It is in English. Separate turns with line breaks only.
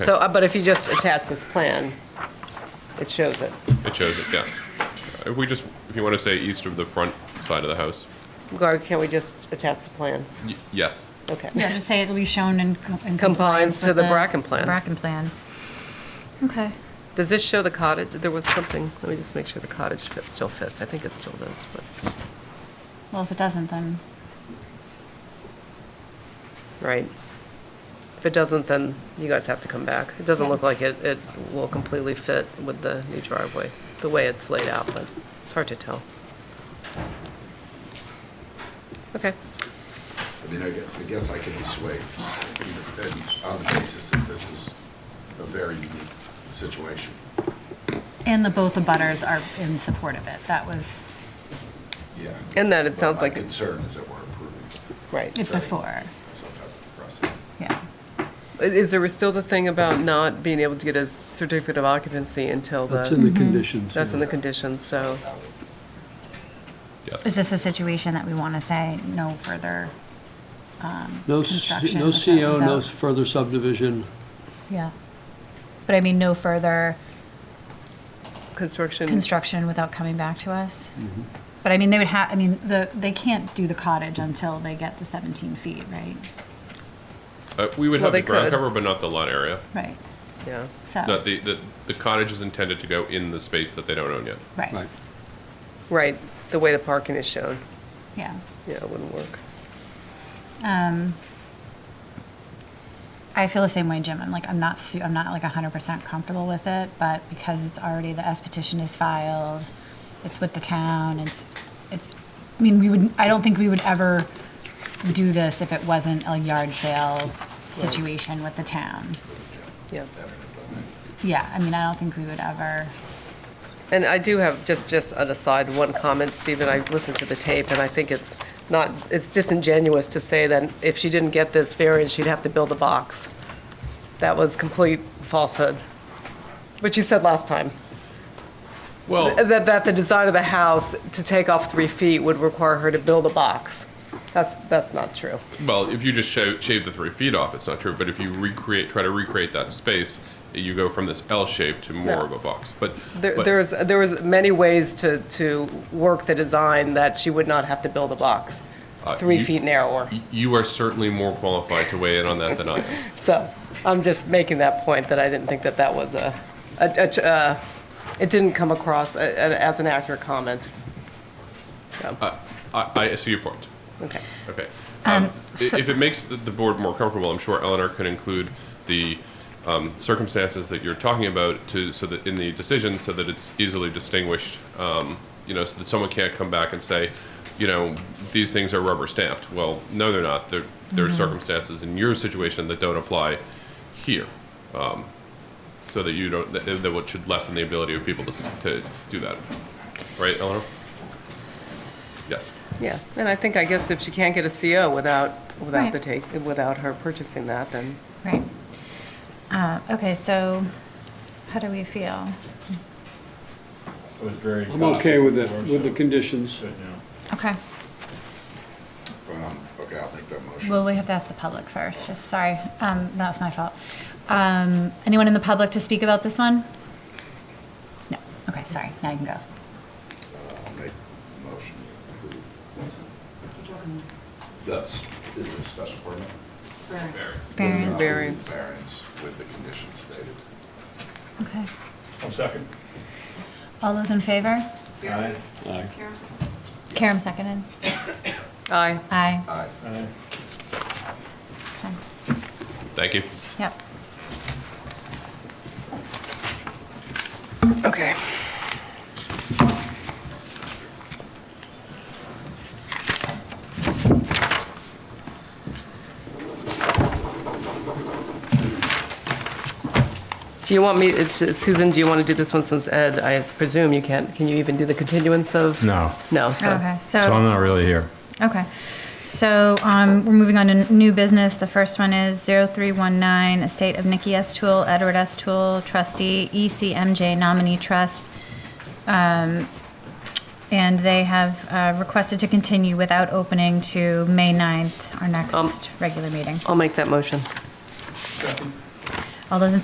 So, uh, but if you just attach this plan, it shows it.
It shows it, yeah. If we just, if you want to say east of the front side of the house,
Or can we just attach the plan?
y- yes.
Okay.
Yeah, just say it'll be shown in co- in
Compliance
compliance
to
with
the
the...
Bracken plan.
Bracken plan. Okay.
Does this show the cottage? There was something, let me just make sure the cottage fits, still fits. I think it still does, but,
Well, if it doesn't, then,
right. If it doesn't, then you guys have to come back. It doesn't look like it, it will completely fit with the new driveway, the way it's laid out, but it's hard to tell. Okay.
I mean, I guess, I guess I can be swayed you know, and on the basis that this is a very unique situation.
and the, both the butters are in support of it. That was
Yeah.
And that it
But
sounds like-
My concern is that we're approving
Right.
it before,
some type of precedent.
yeah.
Is there still the thing about not being able to get a certificate of occupancy until the?
That's in the conditions.
That's in
yeah.
the conditions, so,
Yes.
Is this a situation that we want to say no further um,
No, s-
construction?
no
without-
CO, no
without-
further subdivision.
Yeah. But I mean, no further
construction.
construction without coming back to us?
Mm-hmm.
But I mean, they would have, I mean, the, they can't do the cottage until they get the 17 feet, right?
Uh, We would
Well,
have the
they
ground
could. Oh.
cover, but not the lot area.
Right,
Yeah.
so,
No, the, the- the cottage is intended to go in the space that they don't own yet.
right,
Right.
Right, the way the parking is shown,
yeah.
yeah, it wouldn't work.
Um, I feel the same way, Jim. I'm like, I'm not, su- I'm not like 100% comfortable with it, but because it's already, the S petition is filed, it's with the town, it's, it's, I mean, we would, I don't think we would ever do this if it wasn't a yard sale situation with the town.
Yeah.
Yeah, I mean, I don't think we would ever,
And I do have, just, just an aside, one comment, Stephen, I listened to the tape, and I think it's not, it's disingenuous to say that if she didn't get this variance, she'd have to build a box. That was complete falsehood, which you said last time.
Well,
That, that the design of the house to take off three feet would require her to build a box. That's, that's not true.
well, if you just shave, shave the three feet off, it's not true, but if you recreate, try to recreate that space, you go from this L shape to
No.
more of a box, but.
There,
but-
there was, there was many ways to, to work the design that she would not have to build a box,
Uh,
three
you-
feet narrower.
y- You are certainly more qualified to weigh in on that than I am.
So I'm just making that point that I didn't think that that was a, a- a ch- uh, it didn't come across a- a- as an accurate comment. So,
I, I I see your point.
Okay.
Okay. Um, i- If it makes the- the board more comfortable, I'm sure Eleanor could include the um, circumstances that you're talking about to, so that, in the decision, so that it's easily distinguished, um, you know, so that someone can't come back and say, you know, these things are rubber stamped. Well, no, they're not. There, there are circumstances in your situation that don't apply here. um, So that you don't, that, that what should lessen the ability of people to, s- to do that. Right, Eleanor? Yes.
Yeah, and I think, I guess if she can't get a CO without, without
Right.
the take, without her purchasing that, then
right. Uh, Okay, so how do we feel?
It was very.
I'm okay with it,
it.
with the conditions.
Okay,
Um, Okay, I'll make that motion.
well, we have to ask the public first, just sorry, um, that was my fault. Um, Anyone in the public to speak about this one? No, okay, sorry, now you can go.
Uh, I'll make the motion to approve. That's, is it a special permit?
Variance,
Variance.
Variance with the conditions stated.
okay.
One second.
All those in favor?
Aye.
Karam seconded.
aye.
Aye,
Aye.
Aye.
okay,
Thank you.
yep.
Okay. Do you want me, it's- Susan, do you want to do this one since Ed, I presume you can't, can you even do the continuance of?
No,
No, so.
Okay,
so I'm
so,
not really here.
okay. So um, we're moving on to n- new business. The first one is 0319, estate of Nikki S. Tool, Edward S. Tool, trustee, E ECMJ nominee trust. Um, And they have uh, requested to continue without opening to May 9th, our next regular meeting.
I'll make that motion.
Second.
All those in